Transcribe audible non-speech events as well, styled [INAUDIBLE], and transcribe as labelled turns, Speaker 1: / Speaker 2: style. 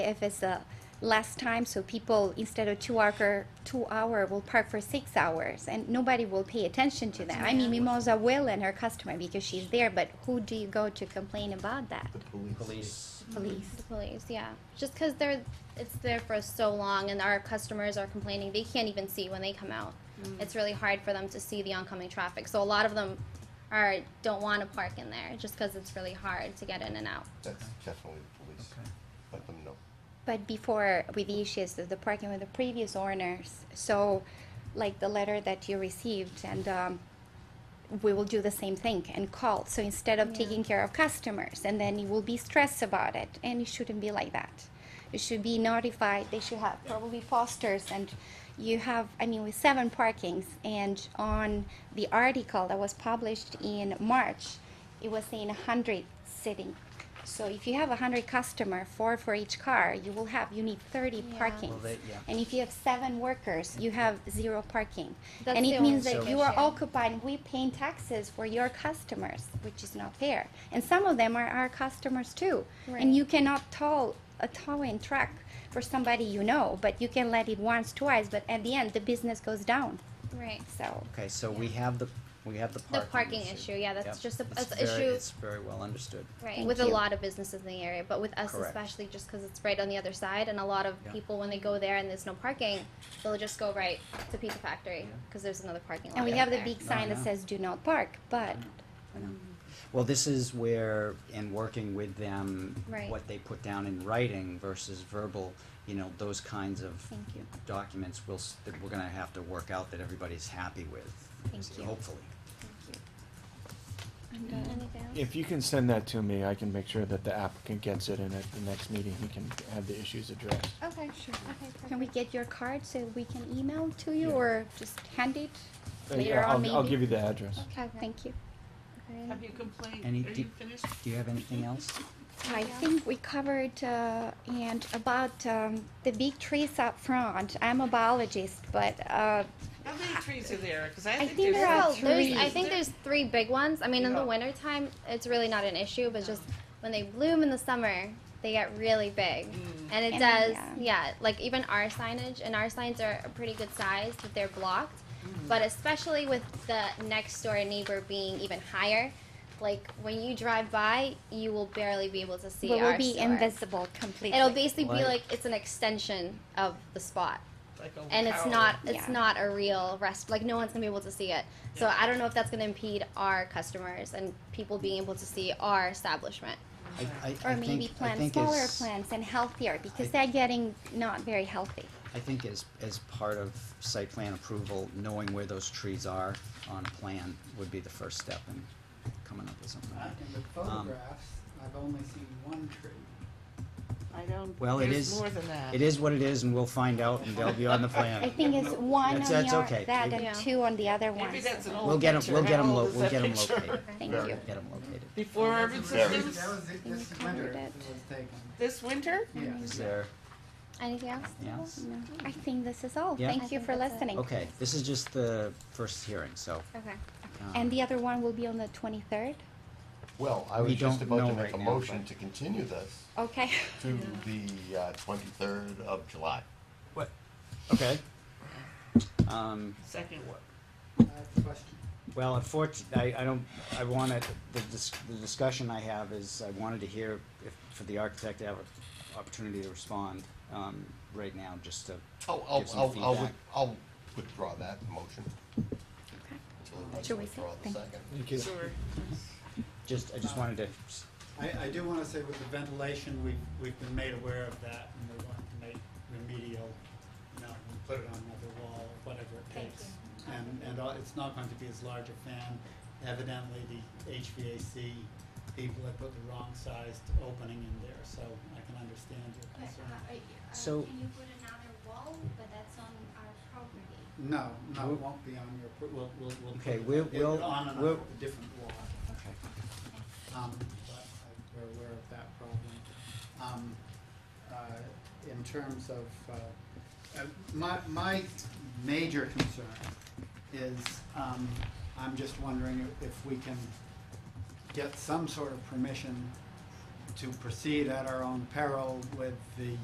Speaker 1: if it's a less time, so people instead of two hour, two hour will park for six hours, and nobody will pay attention to that. I mean, Mimosa will and her customer because she's there, but who do you go to complain about that?
Speaker 2: The police.
Speaker 3: Police.
Speaker 1: Police.
Speaker 4: The police, yeah. Just because they're, it's there for so long and our customers are complaining, they can't even see when they come out.
Speaker 1: Mm.
Speaker 4: It's really hard for them to see the oncoming traffic. So a lot of them are, don't want to park in there just because it's really hard to get in and out.
Speaker 2: That's definitely the police. Let them know.
Speaker 1: But before with the issues of the parking with the previous owners, so like the letter that you received and um, we will do the same thing and call. So instead of taking care of customers and then you will be stressed about it and it shouldn't be like that. You should be notified, they should have probably posters and you have, I mean, with seven parkings and on the article that was published in March, it was saying a hundred sitting. So if you have a hundred customer, four for each car, you will have, you need thirty
Speaker 4: Yeah.
Speaker 1: parkings.
Speaker 3: Well, they- yeah.
Speaker 1: And if you have seven workers, you have zero parking.
Speaker 4: That's
Speaker 1: And
Speaker 4: the
Speaker 1: it means
Speaker 4: only
Speaker 1: that you are
Speaker 4: issue.
Speaker 1: occupying, we paying taxes for your customers, which is not fair. And some of them are our customers too.
Speaker 4: Right.
Speaker 1: And you cannot toll a towing truck for somebody you know, but you can let it once, twice, but at the end, the business goes down,
Speaker 4: Right.
Speaker 1: so.
Speaker 3: Okay, so we have the, we have the
Speaker 4: The
Speaker 3: parking issue.
Speaker 4: parking issue, yeah, that's
Speaker 3: Yep.
Speaker 4: just a-
Speaker 3: It's
Speaker 4: it's a
Speaker 3: very-
Speaker 4: issue-
Speaker 3: It's very well understood.
Speaker 4: Right,
Speaker 1: Thank
Speaker 4: with a
Speaker 1: you.
Speaker 4: lot of businesses in the area, but with us
Speaker 3: Correct.
Speaker 4: especially, just because it's right on the other side, and a lot of
Speaker 3: Yeah.
Speaker 4: people, when they go there and there's no parking, they'll just go right to Pizza Factory, because there's another parking lot
Speaker 1: And we
Speaker 4: out
Speaker 1: have the
Speaker 4: there.
Speaker 1: big sign that
Speaker 3: Uh-huh.
Speaker 1: says do not park, but
Speaker 3: I know. Well, this is where, in working with them,
Speaker 4: Right.
Speaker 3: what they put down in writing versus verbal, you know, those kinds of
Speaker 1: Thank you.
Speaker 3: documents will, s- that we're gonna have to work out that everybody's happy with,
Speaker 1: Thank you.
Speaker 3: hopefully.
Speaker 4: uh, Anything else?
Speaker 5: If you can send that to me, I can make sure that the applicant gets it and at the next meeting, he can have the issues addressed.
Speaker 1: Oh,
Speaker 4: Okay, sure.
Speaker 1: can we get your card so we can email to you
Speaker 5: Yeah.
Speaker 1: or just hand it
Speaker 5: Uh,
Speaker 1: later
Speaker 5: yeah,
Speaker 1: on
Speaker 5: I'll-
Speaker 1: maybe?
Speaker 5: I'll give you the address.
Speaker 1: Okay, thank you.
Speaker 6: Have you complained?
Speaker 3: Any-
Speaker 6: Are
Speaker 3: do-
Speaker 6: you finished?
Speaker 3: Do you have anything else?
Speaker 1: I think we covered uh, and about um, the big trees up front. I'm a biologist, but uh,
Speaker 6: How many trees are there? Because I
Speaker 1: I
Speaker 6: think
Speaker 1: think
Speaker 6: there's.
Speaker 1: there are
Speaker 4: Well, there's, I
Speaker 1: trees.
Speaker 4: think there's three big ones. I mean, in the
Speaker 6: Yeah.
Speaker 4: wintertime, it's really not an issue, but just when they bloom in the summer, they get really big.
Speaker 6: Mm.
Speaker 4: And it
Speaker 1: And,
Speaker 4: does,
Speaker 1: yeah.
Speaker 4: yeah. like even our signage, and our signs are a pretty good size, but they're blocked.
Speaker 6: Mm.
Speaker 4: But especially with the next door neighbor being even higher, like when you drive by, you will barely be able to see
Speaker 1: we will
Speaker 4: our
Speaker 1: be
Speaker 4: store.
Speaker 1: invisible completely.
Speaker 4: It'll basically be
Speaker 3: What?
Speaker 4: like it's an extension of the spot
Speaker 6: like a
Speaker 4: and it's
Speaker 6: cow.
Speaker 4: not it's
Speaker 1: Yeah.
Speaker 4: not a real rest like no one's gonna be able to see it so
Speaker 6: Yeah.
Speaker 4: i don't know if that's gonna impede our customers and people being able to see our establishment
Speaker 3: I, I, I think,
Speaker 1: or maybe
Speaker 3: I
Speaker 1: plant
Speaker 3: think
Speaker 1: smaller
Speaker 3: as-
Speaker 1: plants and healthier because
Speaker 3: I-
Speaker 1: they're getting not very healthy.
Speaker 3: I think as, as part of site plan approval, knowing where those trees are on plan would be the first step in coming up with something.
Speaker 7: Uh, In the photographs, I've only seen one tree.
Speaker 6: I don't.
Speaker 3: Well, it
Speaker 6: there's
Speaker 3: is-
Speaker 6: More than that.
Speaker 3: It is what it is, and we'll find out, and they'll be
Speaker 1: [LAUGHS]
Speaker 3: on the
Speaker 1: I
Speaker 3: plan.
Speaker 1: think it's one
Speaker 3: That's-
Speaker 1: on
Speaker 3: that's
Speaker 1: your,
Speaker 3: okay.
Speaker 1: that
Speaker 4: Yeah.
Speaker 1: and two on the other one.
Speaker 6: Maybe that's an old
Speaker 3: We'll get 'em-
Speaker 6: picture.
Speaker 3: we'll get 'em
Speaker 6: How
Speaker 3: lo-
Speaker 6: old is
Speaker 3: we'll
Speaker 6: that
Speaker 3: get 'em
Speaker 6: picture?
Speaker 3: located.
Speaker 1: [LAUGHS] Thank
Speaker 2: Very
Speaker 1: you.
Speaker 3: Get them located.
Speaker 6: Before urban
Speaker 7: That
Speaker 6: systems,
Speaker 7: was it this
Speaker 1: covered
Speaker 7: winter
Speaker 1: it.
Speaker 7: it was taken.
Speaker 6: this winter?
Speaker 3: Is
Speaker 7: Yeah.
Speaker 3: there,
Speaker 4: anything else
Speaker 3: yes?
Speaker 1: No, I think this is all.
Speaker 3: Yeah. I
Speaker 1: Thank you
Speaker 4: think
Speaker 1: for
Speaker 4: that's it.
Speaker 1: listening.
Speaker 3: Okay, this is just the first hearing, so.
Speaker 4: okay
Speaker 3: um,
Speaker 1: And the other one will be on the 23rd.
Speaker 2: Well, I
Speaker 3: We
Speaker 2: was just
Speaker 3: don't
Speaker 2: about to
Speaker 3: know
Speaker 2: make
Speaker 3: right
Speaker 2: a
Speaker 3: now,
Speaker 2: motion
Speaker 3: but-
Speaker 2: to continue this
Speaker 1: Okay.
Speaker 4: [LAUGHS]
Speaker 2: to the uh, twenty-third of July.
Speaker 3: What? Okay. Um,
Speaker 6: Second what?
Speaker 7: I have a question.
Speaker 3: Well, unfortunately, I, I don't, I wanted, the dis- the discussion I have is, I wanted to hear if, for the architect to have an opportunity to respond, um, right now, just to
Speaker 2: I'll, I'll,
Speaker 3: give some
Speaker 2: I'll, I'll,
Speaker 3: feedback.
Speaker 2: with- I'll withdraw that motion. Until he wants to
Speaker 1: Should we
Speaker 2: withdraw the
Speaker 1: say-
Speaker 2: second.
Speaker 6: Sure.
Speaker 3: Just, I just wanted to, s-
Speaker 7: I, I do wanna say with the ventilation, we've, we've been made aware of that and we want to make remedial, you know, and put it on another wall, whatever it takes. And, and all- it's not going to be as large a fan. Evidently, the HVAC people have put the wrong sized opening in there, so I can understand your concern.
Speaker 3: So-
Speaker 8: uh, Can you put another wall, but that's on our property?
Speaker 7: No, no, it won't be on your, pro- we'll, we'll, we'll.
Speaker 3: Okay,
Speaker 7: put it-
Speaker 3: we'll-
Speaker 7: it'll be
Speaker 3: we'll-
Speaker 7: On and
Speaker 3: we'll-
Speaker 7: off a different wall. Um, but I- we're aware of that problem. Um, uh, in terms of, uh, uh, my, my major concern is, um, I'm just wondering if we can get some sort of permission to proceed at our own peril with the